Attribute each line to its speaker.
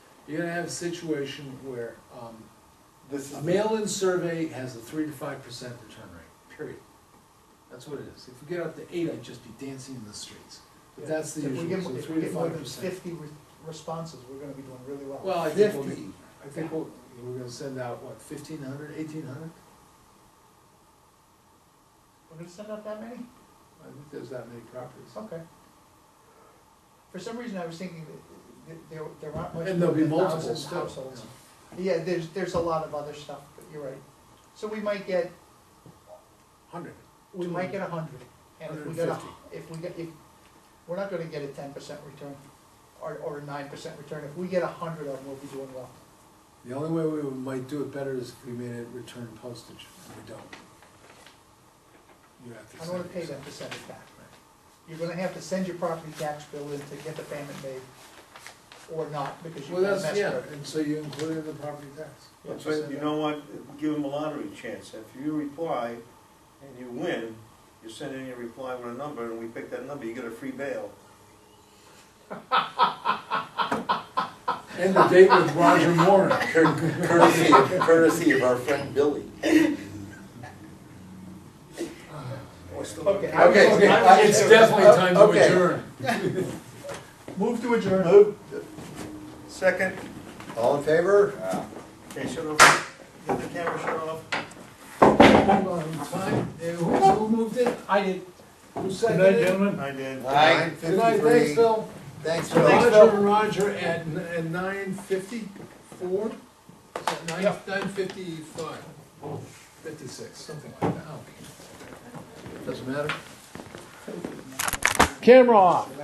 Speaker 1: you're gonna have a situation where, um,
Speaker 2: This is.
Speaker 1: a mail-in survey has a three to five percent return rate, period. That's what it is. If we get up to eight, I'd just be dancing in the streets. But that's the
Speaker 3: If we get-
Speaker 1: usual, so
Speaker 3: if we
Speaker 1: three to
Speaker 3: get more
Speaker 1: five
Speaker 3: than
Speaker 1: percent.
Speaker 3: Fifty re- responses, we're gonna be doing really well.
Speaker 1: Well, I think we'll,
Speaker 2: Fifty.
Speaker 1: I think we'll, we're gonna send out, what, fifteen hundred, eighteen hundred?
Speaker 3: We're gonna send out that many?
Speaker 1: I think there's that many properties.
Speaker 3: Okay. For some reason, I was thinking that- that there, there aren't much.
Speaker 1: And there'll be
Speaker 3: more than a thousand
Speaker 1: multiple still.
Speaker 3: Households. Yeah, there's, there's a lot of other stuff, but you're right. So we might get,
Speaker 1: Hundred.
Speaker 3: we might get a hundred, and if we get a,
Speaker 1: 150.
Speaker 3: if we get, if, we're not gonna get a ten percent return, or, or a nine percent return, if we get a hundred of them, we'll be doing well.
Speaker 1: The only way we might do it better is if we made it return postage, and we don't. You have to
Speaker 3: I don't wanna
Speaker 1: send
Speaker 3: pay
Speaker 1: it.
Speaker 3: them to send it back. You're gonna have to send your property tax bill in to get the payment made, or not, because you've
Speaker 1: Well,
Speaker 3: got a
Speaker 1: that's,
Speaker 3: mess
Speaker 1: yeah,
Speaker 3: with it.
Speaker 1: and so you include it in the property tax.
Speaker 3: Yeah,
Speaker 4: But you know what, give them a lottery chance, if you reply and you win, you send in your reply with a number, and we pick that number, you get a free bail.
Speaker 1: And the date with Roger Warren.
Speaker 2: Cour- Courtesy, of- courtesy of our friend Billy.
Speaker 3: Okay.
Speaker 2: Okay.
Speaker 1: Okay, uh,
Speaker 3: I was-
Speaker 1: it's definitely time to
Speaker 2: Okay.
Speaker 1: adjourn.
Speaker 3: Move to adjourn.
Speaker 2: Move,
Speaker 4: Second,
Speaker 2: all in favor?
Speaker 4: okay, shut off, get the camera shut off.
Speaker 1: Hold on, time, Uh, who, who moved it?
Speaker 3: I did.
Speaker 1: Who seconded it?
Speaker 4: I did.
Speaker 1: Good
Speaker 2: Nine
Speaker 1: night, thanks,
Speaker 2: fifty-three.
Speaker 1: Phil.
Speaker 2: Thanks, Phil.
Speaker 1: Roger and Roger at, n- at nine fifty-four? Is that nine,
Speaker 3: Yep.
Speaker 1: nine fifty-five? Fifty-six, something like that. Doesn't matter. Camera off.